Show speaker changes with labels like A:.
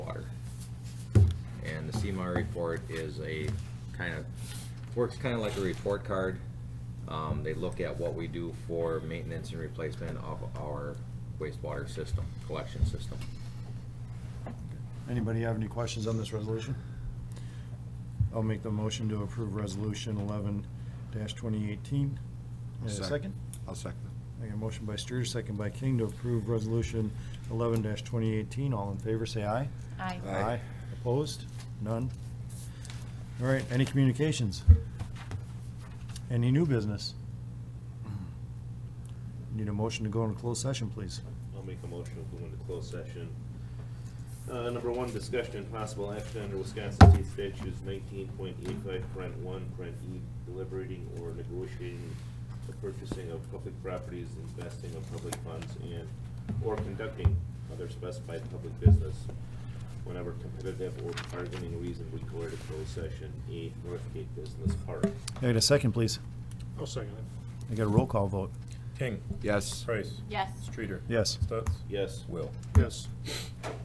A: CMAR report is a kind of, works kind of like a report card. Um, they look at what we do for maintenance and replacement of our wastewater system, collection system.
B: Anybody have any questions on this resolution? I'll make the motion to approve Resolution 11-2018. Uh, Second?
C: I'll second.
B: I got a motion by Streeter, second by King to approve Resolution 11-2018. All in favor, say aye.
D: Aye.
C: Aye.
B: Opposed? None? All right, any communications? Any new business? Need a motion to go into closed session, please.
E: I'll make a motion to go into closed session. Uh, number one, discussion and possible action under Wisconsin State Statutes nineteen point eight five, print one, print E, deliberating or negotiating the purchasing of public properties, investing of public funds, and, or conducting other specified public business whenever competitive or bargaining reason required a closed session, A, Northgate Business Park.
B: I got a second, please.
F: I'll second
B: I got a roll call vote.
F: it. King,
C: Yes.
F: Price,
D: Yes.
F: Streeter,
B: Yes.
F: Stutz,
E: Yes.
F: Will. Yes.